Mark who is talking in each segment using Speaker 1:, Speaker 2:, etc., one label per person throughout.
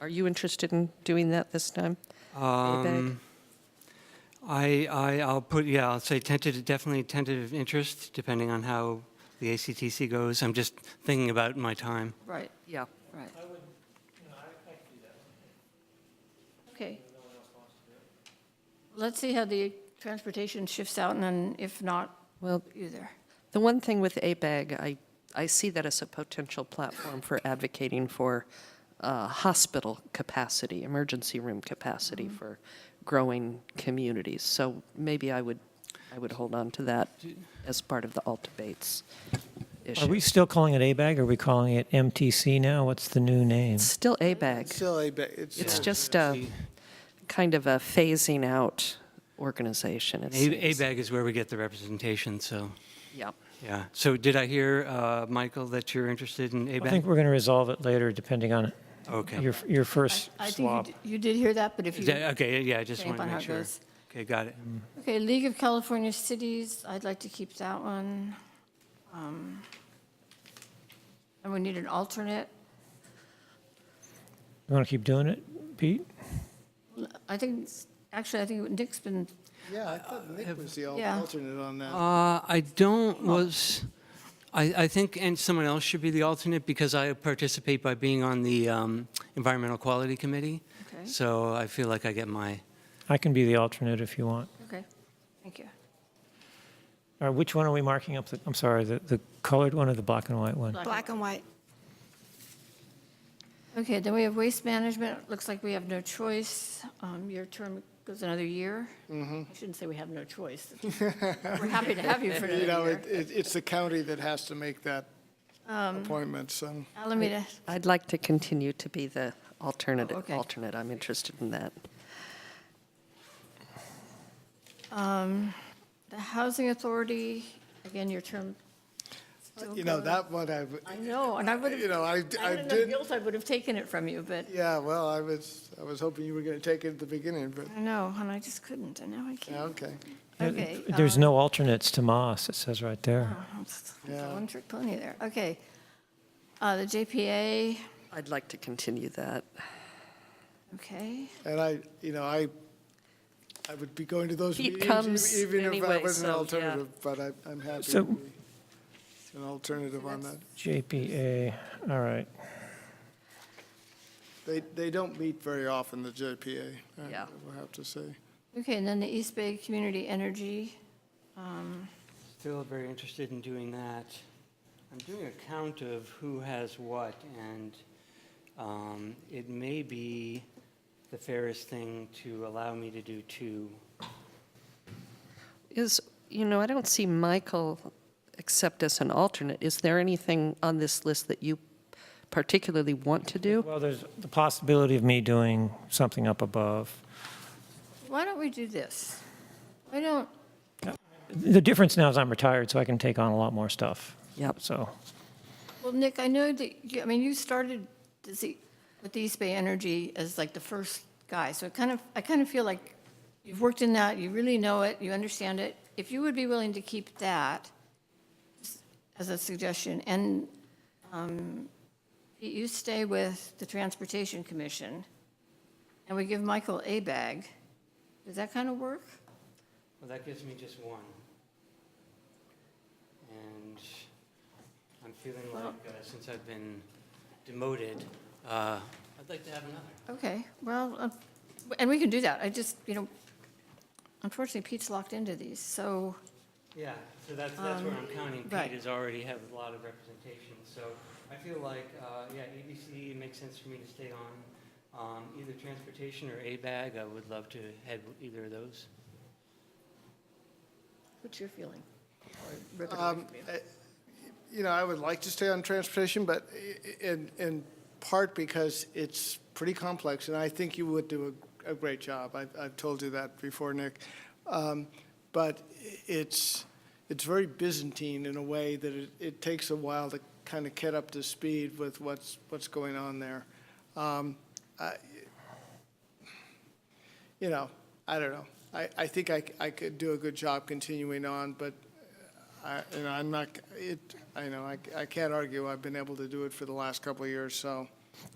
Speaker 1: Are you interested in doing that this time? David?
Speaker 2: Um, I, I, I'll put, yeah, I'll say tentative, definitely tentative interest, depending on how the ACTC goes. I'm just thinking about my time.
Speaker 1: Right, yeah, right.
Speaker 3: Okay. Let's see how the transportation shifts out, and then if not,
Speaker 1: Well,
Speaker 3: either.
Speaker 1: the one thing with ABAG, I, I see that as a potential platform for advocating for uh, hospital capacity, emergency room capacity for growing communities. So maybe I would, I would hold on to that as part of the alt debates
Speaker 4: Are we
Speaker 1: issue.
Speaker 4: still calling it ABAG? Are we calling it MTC now? What's the new name?
Speaker 1: It's still ABAG.
Speaker 5: Still a bit,
Speaker 1: It's just a kind of a phasing out organization. it
Speaker 2: A-
Speaker 1: seems.
Speaker 2: ABAG is where we get the representation, so,
Speaker 1: Yeah.
Speaker 2: yeah. So did I hear, uh, Michael, that you're interested in
Speaker 4: I think
Speaker 2: ABAG?
Speaker 4: we're going to resolve it later, depending on
Speaker 2: Okay.
Speaker 4: your, your first
Speaker 3: I think you
Speaker 4: swap.
Speaker 3: d- you did hear that, but if
Speaker 2: Is
Speaker 3: you,
Speaker 2: that- uh, Okay, yeah, I just want
Speaker 3: depending
Speaker 2: to
Speaker 3: upon how
Speaker 2: make
Speaker 3: it
Speaker 2: sure.
Speaker 3: goes.
Speaker 2: Okay, got it.
Speaker 4: Mm.
Speaker 3: Okay, League of California Cities, I'd like to keep that one. Um, And we need an alternate.
Speaker 4: You want to keep doing it, Pete?
Speaker 3: I think, actually, I think Nick's been,
Speaker 5: yeah, I thought Nick was the al-
Speaker 3: Yeah.
Speaker 5: alternate on that.
Speaker 2: Uh, I don't was, I, I think, and someone else should be the alternate because I participate by being on the um, Environmental Quality Committee.
Speaker 3: Okay.
Speaker 2: So I feel like I get my,
Speaker 4: I can be the alternate if you want.
Speaker 3: okay, thank you.
Speaker 4: All right, which one are we marking up? The- I'm sorry, the, the colored one or the black and white one?
Speaker 6: Black and white.
Speaker 3: Okay, then we have Waste Management, It looks like we have no choice. Um, Your term goes another year.
Speaker 5: Mm-hmm.
Speaker 3: I shouldn't say we have no choice. We're happy to have you for
Speaker 5: You know,
Speaker 3: another year.
Speaker 5: it, it- it's the county that has to make that appointment, so.
Speaker 3: Alameda,
Speaker 1: I'd like to continue to be the alternate,
Speaker 3: Oh, okay.
Speaker 1: alternate. I'm interested in that.
Speaker 3: um, the Housing Authority, again, your term still
Speaker 5: You know,
Speaker 3: goes.
Speaker 5: that one, I, would-
Speaker 3: I know, and I would
Speaker 5: you
Speaker 3: have,
Speaker 5: know,
Speaker 3: I
Speaker 5: I, I
Speaker 3: had enough
Speaker 5: did,
Speaker 3: guilt, I would have taken it from you, but
Speaker 5: yeah, well, I was, I was hoping you were going to take it at the beginning, but,
Speaker 3: I know, and I just couldn't, and now I
Speaker 5: yeah,
Speaker 3: can't.
Speaker 5: okay.
Speaker 3: Okay. uh,
Speaker 4: There's no alternates to Moss, it says right there.
Speaker 5: Yeah.
Speaker 3: One trick pony there, okay. Uh, The JPA,
Speaker 1: I'd like to continue that.
Speaker 3: okay.
Speaker 5: And I, you know, I, I would be going to those
Speaker 1: Pete
Speaker 5: meetings
Speaker 1: comes
Speaker 5: e- even if I
Speaker 1: anyway,
Speaker 5: was
Speaker 1: so,
Speaker 5: an
Speaker 1: yeah.
Speaker 5: alternative, but I, I'm happy
Speaker 4: So-
Speaker 5: to be an alternative on that.
Speaker 4: JPA, all right.
Speaker 5: They, they don't meet very often, the JPA, I
Speaker 1: Yeah.
Speaker 5: will have to say.
Speaker 3: Okay, and then the East Bay Community Energy. um,
Speaker 2: still very interested in doing that. I'm doing a count of who has what, and um, it may be the fairest thing to allow me to do two.
Speaker 1: Is, you know, I don't see Michael except as an alternate. Is there anything on this list that you particularly want to do?
Speaker 4: Well, there's the possibility of me doing something up above.
Speaker 3: Why don't we do this? Why don't,
Speaker 4: The difference now is I'm retired, so I can take on a lot more stuff.
Speaker 1: Yep.
Speaker 4: So,
Speaker 3: well, Nick, I know that, you- I mean, you started to see- with the East Bay Energy as like the first guy, so it kind of, I kind of feel like you've worked in that, you really know it, you understand it. If you would be willing to keep that as a suggestion, and um, you stay with the Transportation Commission, and we give Michael a bag, does that kind of work?
Speaker 2: Well, that gives me just one. And I'm feeling like, uh, since I've been demoted, uh, I'd like to have another.
Speaker 3: Okay, well, uh, and we can do that. I just, you know, unfortunately Pete's locked into these, so,
Speaker 2: Yeah, so that's, that's where I'm counting,
Speaker 3: right.
Speaker 2: Pete has already have a lot of representation, so I feel like, uh, yeah, ABC, it makes sense for me to stay on, um, either transportation or ABAG, I would love to head either of those.
Speaker 3: what's your feeling?
Speaker 5: Um, I- You know, I would like to stay on transportation, but i- in, in part because it's pretty complex, and I think you would do a, a great job. I've, I've told you that before, Nick. Um, But i- it's, it's very Byzantine in a way that it, it takes a while to kind of get up to speed with what's, what's going on there. Um, I- You know, I don't know. I, I think I, c- I could do a good job continuing on, but I, you know, I'm not, it, I know, I, I can't argue, I've been able to do it for the last couple of years, so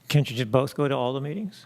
Speaker 4: Can't you just both go to all the meetings?